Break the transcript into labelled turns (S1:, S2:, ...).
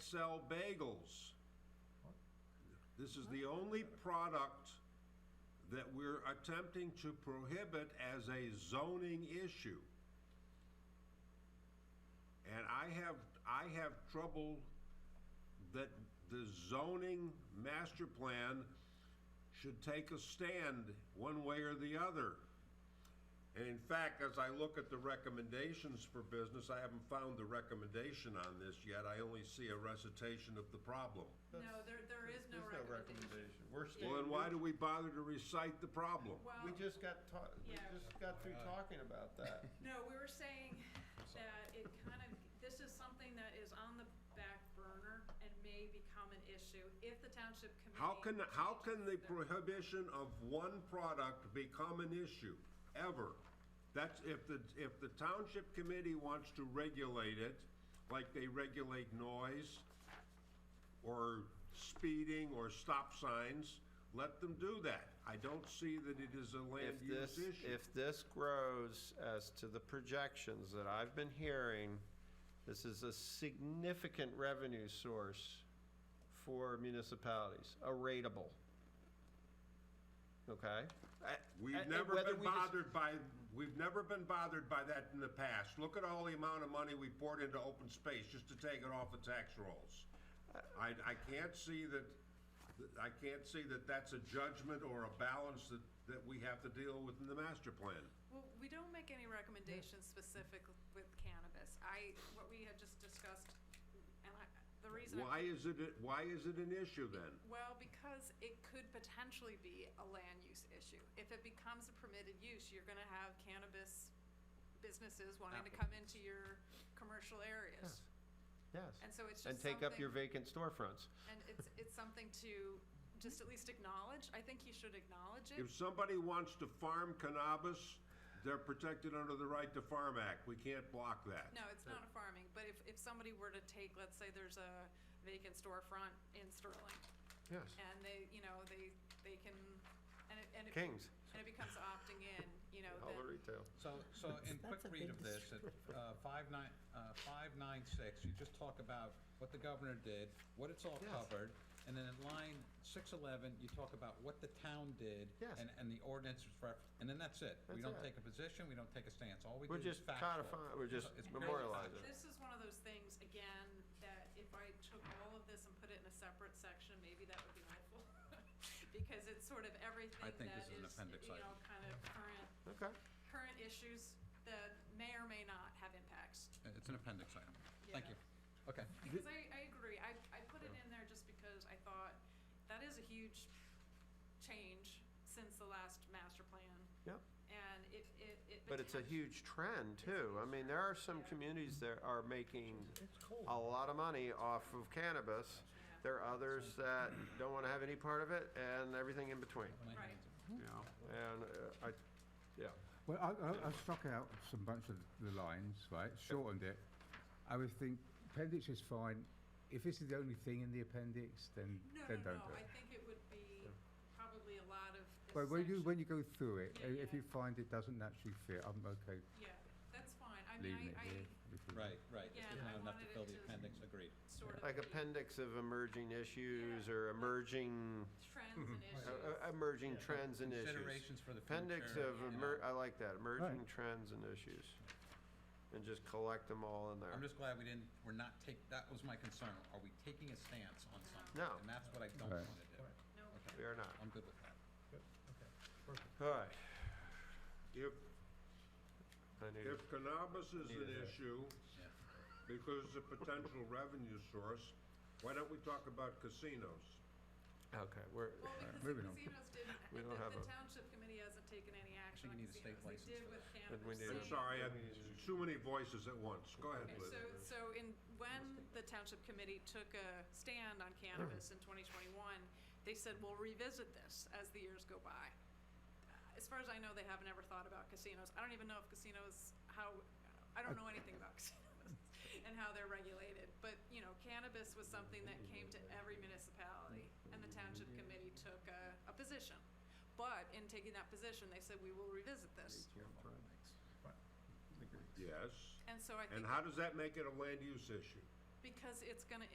S1: sell bagels. This is the only product that we're attempting to prohibit as a zoning issue. And I have, I have trouble that the zoning master plan should take a stand one way or the other. And in fact, as I look at the recommendations for business, I haven't found the recommendation on this yet. I only see a recitation of the problem.
S2: No, there, there is no
S3: There's no
S2: recommendation.
S3: recommendation.
S1: Well,
S3: We're
S1: then
S3: standing-
S1: why do we bother to recite the problem?
S2: Well,
S3: We just got ta- we
S2: Oh. Yeah.
S3: just got through talking about that.
S2: no, we were saying that it kind of, this is something that is on the back burner and may become an issue if the township committee.
S1: How can, how can the
S2: changes their-
S1: prohibition of one product become an issue, ever? That's, if the, if the township committee wants to regulate it, like they regulate noise, or speeding, or stop signs, let them do that. I don't see that it is a land
S3: If
S1: use
S3: this,
S1: issue.
S3: if this grows as to the projections that I've been hearing, this is a significant revenue source for municipalities, a rateable. Okay? I- I-
S1: We've
S3: and
S1: never
S3: whether
S1: been
S3: we just-
S1: bothered by, we've never been bothered by that in the past. Look at all the amount of money we poured into open space just to take it off the tax rolls. I, I can't see that, I can't see that that's a judgment or a balance that, that we have to deal with in the master plan.
S2: Well, we don't make any recommendations specific with cannabis. I, what we had just discussed, and I, the reason. I-
S1: Why is it, why is it an issue then?
S2: Well, because it could potentially be a land use issue. If it becomes a permitted use, you're gonna have cannabis businesses wanting to come into your commercial areas.
S3: Yes,
S2: And so it's just
S3: and take
S2: something.
S3: up your vacant storefronts.
S2: And it's, it's something to just at least acknowledge. I think you should acknowledge it.
S1: If somebody wants to farm cannabis, they're protected under the Right to Farm Act. We can't block that.
S2: No, it's not a farming, but if, if somebody were to take, let's say there's a vacant storefront in Sterling,
S3: Yes.
S2: and they, you know, they, they can, and it, and it.
S3: Kings,
S2: And it becomes opting in, you know,
S3: all the
S2: then.
S3: retail.
S4: So, so in quick
S5: That's a
S4: read
S5: big
S4: of this, at uh, five nine, uh, five nine six, you just talk about what the governor did, what it's all
S3: Yes.
S4: covered, and then in line six eleven, you talk about what the town did
S3: Yes.
S4: and, and the ordinance was ref, and then that's it. We
S3: That's
S4: don't
S3: it.
S4: take a position, we don't take a stance, all we do
S3: We're
S4: is
S3: just
S4: factual.
S3: codifying, we're just
S4: It's very
S3: memorializing.
S2: This is one of those things, again, that if I took all of this and put it in a separate section, maybe that would be helpful. Because it's sort of everything that
S4: think this
S2: is,
S4: is an appendix
S2: you know, kind of current,
S3: Okay.
S2: current issues that may or may not have impacts.
S4: Uh, It's an appendix item, thank
S2: Yeah.
S4: you, okay.
S2: Because I, I agree, I, I put it in there just because I thought that is a huge change since the last master plan.
S3: Yep.
S2: And it, it, it.
S3: But it's a
S2: potenti-
S3: huge trend too. I mean, there are some
S2: Yeah.
S3: communities that are making a lot of money off of cannabis.
S2: Yeah,
S3: There are others that don't want to have any part of it and everything in between.
S4: My
S2: Right.
S4: hands are-
S3: And uh, I, yeah.
S6: Well, I, I, I struck out some bunch of the lines, right? Shortened it. I would think appendix is fine. If this is the only thing in the appendix, then
S2: No,
S6: then
S2: no,
S6: don't
S2: no,
S6: do
S2: I
S6: it.
S2: think it would be probably a lot of. this
S6: But when you
S2: section.
S6: when you go through it,
S2: Yeah,
S6: i- if
S2: yeah.
S6: you find it doesn't naturally fit, I'm okay
S2: Yeah, that's fine, I
S6: leaving
S2: mean,
S6: it
S2: I,
S6: here.
S2: I
S6: if you-
S4: Right, right, if
S2: Yeah,
S4: there's
S2: I
S4: not enough to
S2: wanted it
S4: fill the
S2: to-
S4: appendix, agreed.
S2: sort of.
S3: Like
S2: the
S3: appendix of emerging issues or emerging,
S2: Trends and
S3: uh,
S2: issues.
S3: uh, emerging trends and issues.
S4: Considerations for the future.
S3: Appendix of,
S4: you know.
S3: emer- I like that, emerging
S6: Right.
S3: trends and issues. And just collect them all in there.
S4: I'm just glad we didn't, we're not take, that was my concern, are we taking a stance on something?
S3: No.
S4: And that's what I don't
S6: Right.
S4: want to do.
S2: No,
S3: We are not.
S4: I'm good with that.
S3: All right.
S1: If,
S3: I need,
S1: If cannabis is an
S3: Neither.
S1: issue,
S4: Yeah.
S1: because it's a potential revenue source, why don't we talk about casinos?
S3: a- okay, we're,
S2: well, because the
S6: Moving on.
S2: casinos didn't,
S3: We
S2: the
S3: don't have
S2: the
S3: a-
S2: township committee hasn't taken any action on
S4: you need a state
S2: casinos, they
S4: license
S2: did
S4: for
S2: with
S4: that.
S2: cannabis.
S3: we need a-
S1: I'm
S2: Same-
S1: sorry, I have too many voices at once. Go ahead,
S2: Okay,
S1: Liz.
S2: so, so in, when the township committee took a stand on cannabis in twenty twenty-one, they said, we'll revisit this as the years go by. As far as I know, they haven't ever thought about casinos. I don't even know if casinos, how, I don't know anything about casinos and how they're regulated. But, you know, cannabis was something that came to every municipality and the township committee took a, a position. But in taking that position, they said, we will revisit this.
S1: Yes,
S2: And so I think
S1: and how does that make it a land use issue?
S2: because it's gonna